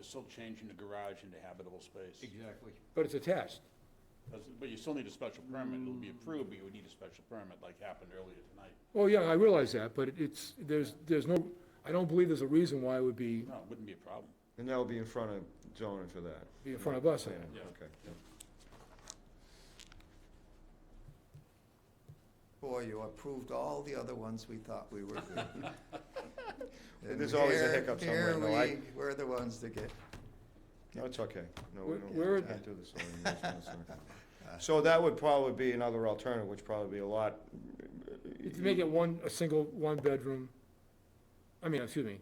still changing the garage into habitable space. Exactly. But it's attached. That's- But you still need a special permit, it'll be approved, but you would need a special permit like happened earlier tonight. Oh, yeah, I realize that, but it's, there's, there's no, I don't believe there's a reason why it would be, No, it wouldn't be a problem. And that'll be in front of zoning for that? be in front of us. Planning, Yeah. Okay. Boy, you approved all the other ones we thought we were good. And There's always a here- hiccup somewhere, no, I- Here we, we're the ones that get, No, it's okay. No, we Where- don't. where- I do this all in this one, sorry. So that would probably be another alternative, which probably be a lot. uh, If you make it one, a single, one-bedroom, I mean, excuse me,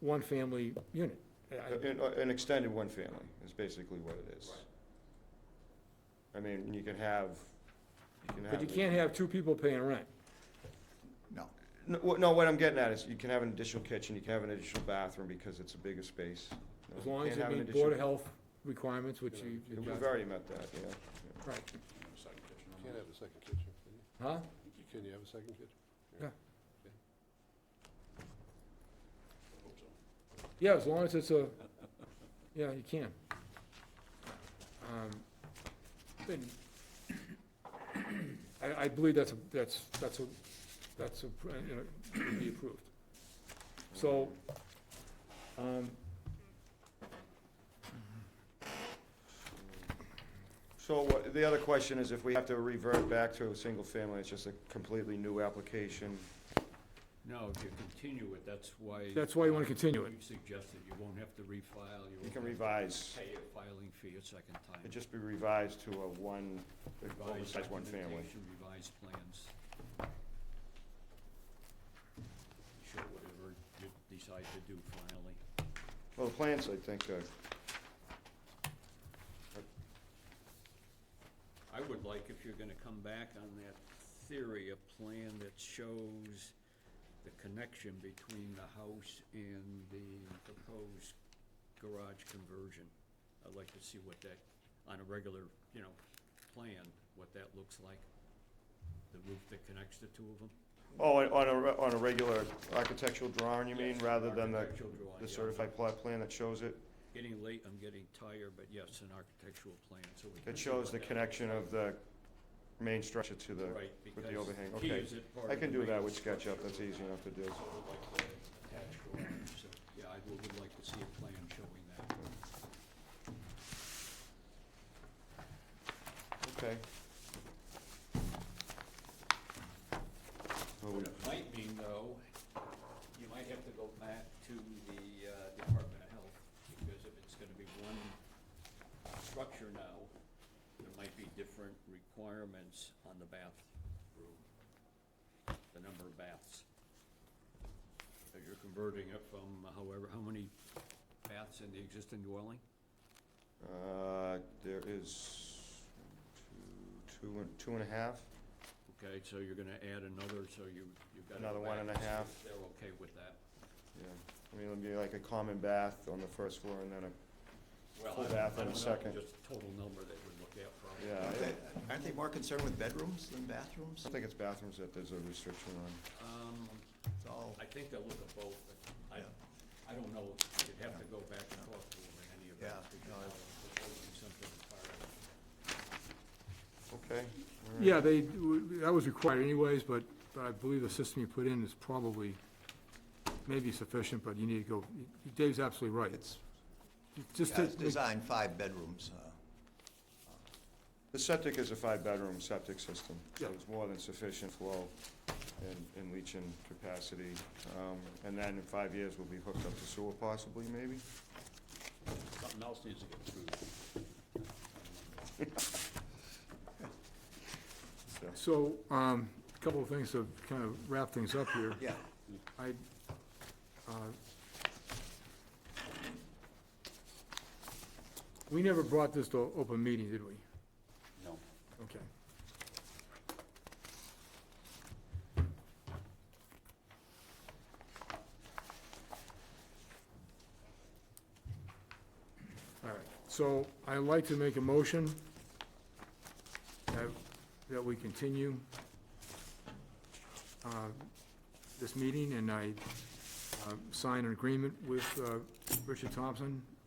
one-family unit. I- I- uh, An, an extended one family is basically what it is. I mean, you can have, you can have. But you the- can't have two people paying rent. no. No, what- no, what I'm getting at is you can have an additional kitchen, you can have an additional bathroom because it's a bigger space. No, As long as can't you have an meet Board of additional- Health requirements, which you. We've already met that, yeah. yeah. Right, Second kitchen. Can't have a second kitchen, can you? huh? You- Can you have a second kitchen? Yeah, as long as it's a, yeah, you can. Um, then- I, I believe that's, a that's, that's, a that's, a you know, would be approved. So, um, So what, the other question is if we have to revert back to a single family, it's just a completely new application. No, if you continue it, that's why. That's why you wanna continue it. You suggested you won't have to refile, You you won't can have to revise, pay a filing fee a second time. it'd just be revised to a one, Revise oversized one family. documentation, Revise plans. Show whatever you decide to do finally. Well, the plans, I think, uh, I would like, if you're gonna come back on that theory, a plan that shows the connection between the house and the proposed garage conversion. I'd like to see what that, on a regular, you know, plan, what that looks like. The roof that connects the two of them. oh, on- on a, re- on a regular architectural drawing, you mean, rather than the, Architectural drawing, the yeah. certified plot plan that shows it? Getting late, I'm getting tired, but yes, an architectural plan, so we can. That see shows what the that- connection of the main structure to the, Right, with the because overhang, he okay. is at part I of can the do that main with SketchUp, that's easy enough to do. attached drawing, so, yeah, I would would like to see a plan showing that. Okay. Well, we- What it might mean, though, you might have to go back to the uh, Department of Health, because if it's gonna be one structure now, there might be different requirements on the bathroom, the number of baths. That you're converting it from however, how many baths in the existing dwelling? Uh, there is two, two, and- two and a half. Okay, so you're gonna add another, so you, you've got. Another one and a half. They're okay with that. Yeah, I mean, it'll be like a common bath on the first floor and then a, Well, Full I- bath I and a don't know, second. Just total number that would look at probably. yeah. I Aren't they- don't- aren't they more concerned with bedrooms than bathrooms? I think it's bathrooms that there's a restriction on. Um, It's all, I think they'll look at both, but I, I don't know, you'd have to go back and talk to them in any event, Yeah, because no, I- I'll propose something as far as. Okay. all right. yeah, they, that was required anyways, but, but I believe the system you put in is probably, maybe sufficient, but you need to go, Dave's absolutely right. it's, Just yeah, to it's designed five bedrooms, uh, The septic is a five-bedroom septic system, so Yeah. it's more than sufficient flow and, and leaching capacity. Um, and then in five years, we'll be hooked up to sewer possibly, maybe? Something else needs to get approved. So, So, um, a couple of things to kind of wrap things up here. yeah. I, uh, we never brought this to open meeting, did we? No. Okay. All right, so I'd like to make a motion that, that we continue uh, this meeting, and I uh, sign an agreement with uh, Richard Thompson